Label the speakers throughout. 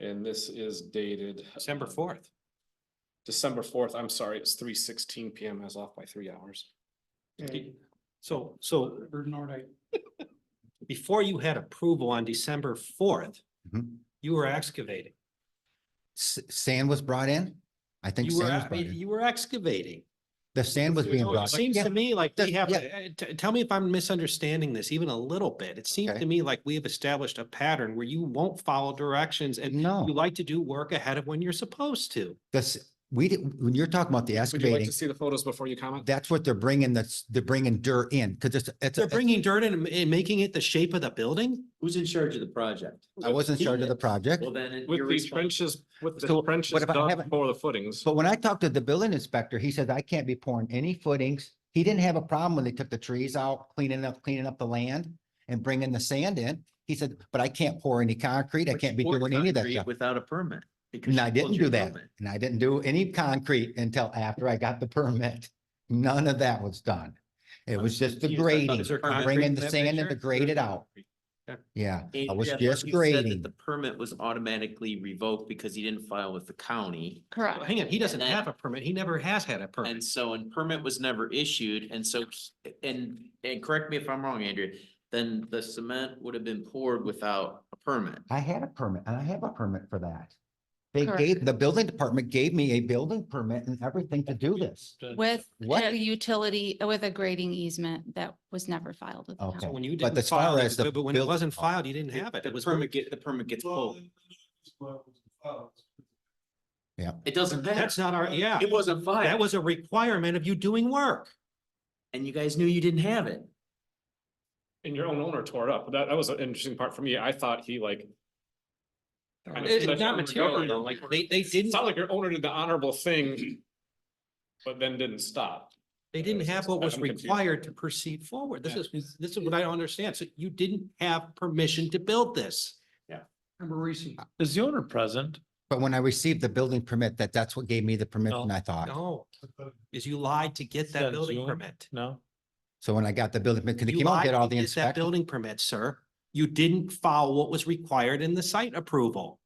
Speaker 1: And this is dated.
Speaker 2: December
Speaker 1: um,
Speaker 2: fourth.
Speaker 1: December fourth, I'm sorry, it's three sixteen PM, I was off by three hours.
Speaker 2: So, so. Bernard, Before you had approval on December fourth,
Speaker 3: Mhm.
Speaker 2: you were excavating.
Speaker 3: S- Sand was brought in? I think
Speaker 2: You were,
Speaker 3: sand was
Speaker 2: a-
Speaker 3: brought in.
Speaker 2: you were excavating.
Speaker 3: The sand was being
Speaker 2: So It
Speaker 3: brought. in.
Speaker 2: seems to
Speaker 3: Yeah,
Speaker 2: me like we
Speaker 3: that-
Speaker 2: have, uh, t- tell me if I'm misunderstanding this even a little bit. It seems
Speaker 3: Okay.
Speaker 2: to me like we have established a pattern where you won't follow directions and you
Speaker 3: No,
Speaker 2: like to do work ahead of when you're supposed to.
Speaker 3: this, we, did- when you're talking about the
Speaker 1: Would you like
Speaker 3: excavating,
Speaker 1: to see the photos before you comment?
Speaker 3: that's what they're bringing, that's, they're bringing dirt in, because it's, it's,
Speaker 2: They're
Speaker 3: a-
Speaker 2: bringing dirt in and- and making it the shape of the building?
Speaker 4: Who's in charge of the project?
Speaker 3: I wasn't in charge of the project.
Speaker 4: Well, then. it-
Speaker 1: With
Speaker 4: you're
Speaker 1: the
Speaker 4: responsible.
Speaker 1: trenches, with
Speaker 3: So
Speaker 1: the
Speaker 3: what
Speaker 1: trenches
Speaker 3: if I
Speaker 1: dug
Speaker 3: haven't-
Speaker 1: for the footings.
Speaker 3: But when I talked to the building inspector, he said, I can't be pouring any footings. He didn't have a problem when they took the trees out, cleaning up, cleaning up the land and bringing the sand in. He said, but I can't pour any concrete. I can't be
Speaker 4: Or
Speaker 3: doing any of that
Speaker 4: concrete
Speaker 3: stuff.
Speaker 4: Without a permit. because
Speaker 3: And
Speaker 4: you
Speaker 3: I
Speaker 4: pulled
Speaker 3: didn't
Speaker 4: your
Speaker 3: do that.
Speaker 4: permit.
Speaker 3: And I didn't do any concrete until after I got the permit. None of that was done. It
Speaker 4: I'm
Speaker 3: was just the
Speaker 4: confused. I thought
Speaker 3: grading,
Speaker 4: there was concrete
Speaker 3: bringing
Speaker 2: in
Speaker 3: the
Speaker 2: that
Speaker 3: sand in
Speaker 2: picture?
Speaker 3: to grade it out. Yeah, I
Speaker 4: And
Speaker 3: was
Speaker 4: Jeff,
Speaker 3: just
Speaker 4: you said that
Speaker 3: grading.
Speaker 4: The permit was automatically revoked because he didn't file with the county.
Speaker 2: Well,
Speaker 5: Correct.
Speaker 2: Hang on, he doesn't
Speaker 4: And then-
Speaker 2: have a permit. He never has had a permit.
Speaker 4: And so, and permit was never issued, and so, he- and, and correct me if I'm wrong, Andrea, then the cement would have been poured without a permit.
Speaker 3: I had a permit and I have a permit for that. They
Speaker 5: Correct.
Speaker 3: gave, the building department gave me a building permit and everything to do this.
Speaker 5: With
Speaker 3: What?
Speaker 5: a utility, with a grading easement that was never filed with the
Speaker 3: Okay.
Speaker 5: town.
Speaker 2: When you
Speaker 3: But
Speaker 2: didn't
Speaker 3: as far
Speaker 2: file, it,
Speaker 3: as the
Speaker 2: but but when it
Speaker 3: build-
Speaker 2: wasn't filed, you didn't have it.
Speaker 4: The
Speaker 2: It was.
Speaker 4: permit get, the permit gets pulled. It doesn't matter.
Speaker 2: That's not our, yeah,
Speaker 4: It wasn't
Speaker 2: that
Speaker 4: filed,
Speaker 2: was a requirement of you doing work.
Speaker 4: and you guys knew you didn't have it.
Speaker 1: And your own owner tore it up. That, that was an interesting part for me. I thought he like. kind of
Speaker 2: It's
Speaker 1: said
Speaker 2: not
Speaker 1: over and
Speaker 2: material
Speaker 1: over.
Speaker 2: though, like they, they
Speaker 1: It's
Speaker 2: didn't,
Speaker 1: not like your owner did the honorable thing. But then didn't stop.
Speaker 2: they didn't have what was
Speaker 1: I'm confused.
Speaker 2: required to proceed forward. This is, this is what I don't understand. So you didn't have permission to build this.
Speaker 6: Is the owner present?
Speaker 3: But when I received the building permit, that that's what gave me the permission,
Speaker 6: No,
Speaker 3: I thought.
Speaker 2: No, is you lied to get that
Speaker 6: Said
Speaker 2: building
Speaker 6: Zoom?
Speaker 2: permit.
Speaker 6: No?
Speaker 3: So when I got the building, because
Speaker 2: You
Speaker 3: came out,
Speaker 2: lied
Speaker 3: did
Speaker 2: to
Speaker 3: all the
Speaker 2: get that
Speaker 3: inspection.
Speaker 2: building permit, sir. You didn't follow what was required in the site approval.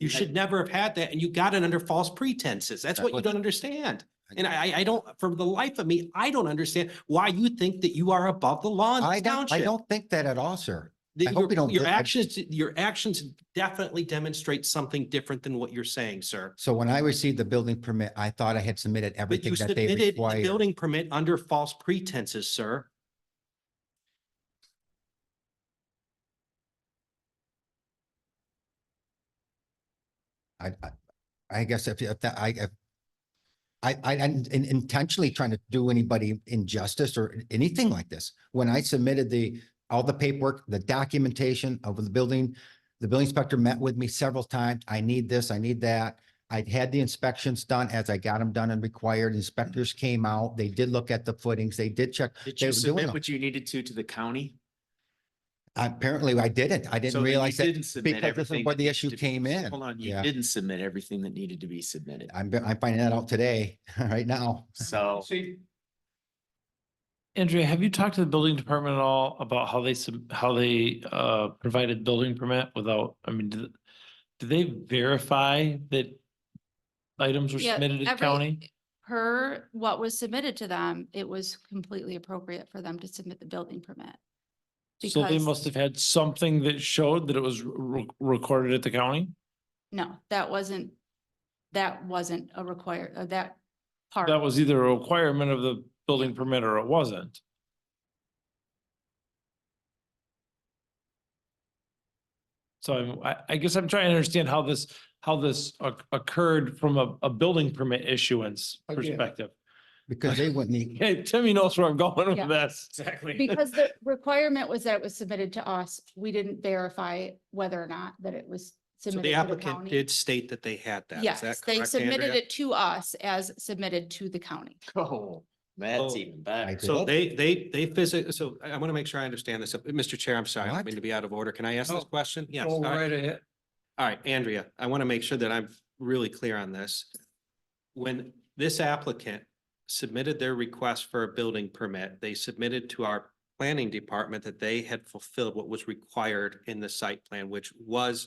Speaker 2: You should never have had that and you got it under false pretenses. That's
Speaker 3: That's
Speaker 2: what you
Speaker 3: what-
Speaker 2: don't understand. And I, I- I don't, for the life of me, I don't understand why you think that you are above the law in
Speaker 3: I
Speaker 2: this
Speaker 3: don't,
Speaker 2: township.
Speaker 3: I don't think that at all, sir.
Speaker 2: The-
Speaker 3: I hope
Speaker 2: your-
Speaker 3: you don't
Speaker 2: Your
Speaker 3: di- I-
Speaker 2: actions, your actions definitely demonstrate something different than what you're saying, sir.
Speaker 3: So when I received the building permit, I thought I had submitted
Speaker 2: But
Speaker 3: everything
Speaker 2: you
Speaker 3: that they
Speaker 2: submitted the
Speaker 3: required.
Speaker 2: building permit under false pretenses, sir.
Speaker 3: I, I, I guess if, if that, I, if- I, I, I'm in- intentionally trying to do anybody injustice or anything like this. When I submitted the, all the paperwork, the documentation of the building, the building inspector met with me several times. I need this, I need that. I'd had the inspections done as I got them done and required. Inspectors came out. They did look at the footings. They did check.
Speaker 4: Did
Speaker 3: They
Speaker 4: you
Speaker 3: were doing
Speaker 4: submit
Speaker 3: them.
Speaker 4: what you needed to to the county?
Speaker 3: Apparently I didn't. I
Speaker 4: So
Speaker 3: didn't
Speaker 4: then you
Speaker 3: realize that.
Speaker 4: didn't submit
Speaker 3: because this is
Speaker 4: everything
Speaker 3: where
Speaker 4: that
Speaker 3: the
Speaker 4: needed
Speaker 3: issue
Speaker 4: to be-
Speaker 3: came in.
Speaker 4: Hold on, you
Speaker 3: Yeah.
Speaker 4: didn't submit everything that needed to be submitted,
Speaker 3: I'm, I'm finding that out today, right now.
Speaker 4: so.
Speaker 6: Andrea, have you talked to the building department at all about how they, sub- how they uh, provided building permit without, I mean, do do they verify that items were
Speaker 5: Yeah,
Speaker 6: submitted to
Speaker 5: every-
Speaker 6: county?
Speaker 5: Per what was submitted to them, it was completely appropriate for them to submit the building permit.
Speaker 6: So they
Speaker 5: because-
Speaker 6: must have had something that showed that it was re- recorded at the county?
Speaker 5: No, that wasn't, that wasn't a required, uh, that part.
Speaker 6: That was either a requirement of the building permit or it wasn't. So I'm- I, I guess I'm trying to understand how this, how this oc- occurred from a, a building permit issuance perspective.
Speaker 3: Because they wouldn't, e-
Speaker 6: Hey, Timmy knows where I'm going
Speaker 5: Yeah.
Speaker 6: with this.
Speaker 1: Exactly.
Speaker 5: Because the requirement was that it was submitted to us. We didn't verify whether or not that it was
Speaker 2: So
Speaker 5: submitted
Speaker 2: the
Speaker 5: to the
Speaker 2: applicant
Speaker 5: county.
Speaker 2: did state that they had that. Is
Speaker 5: Yes,
Speaker 2: that
Speaker 5: they
Speaker 2: correct,
Speaker 5: submitted
Speaker 2: Andrea?
Speaker 5: it to us as submitted to the county.
Speaker 4: Oh, that's
Speaker 2: Oh,
Speaker 4: even better.
Speaker 3: did.
Speaker 2: So they, they, they physically, so I, want to make sure I understand this. Uh, Mr. Chair, I'm sorry, I don't
Speaker 3: What?
Speaker 2: mean to be out of order. Can I ask this
Speaker 6: No.
Speaker 2: question? Yes. all right.
Speaker 6: ahead.
Speaker 2: All right, Andrea, I want to make sure that I'm really clear on this. When this applicant submitted their request for a building permit, they submitted to our planning department that they had fulfilled what was required in the site plan, which was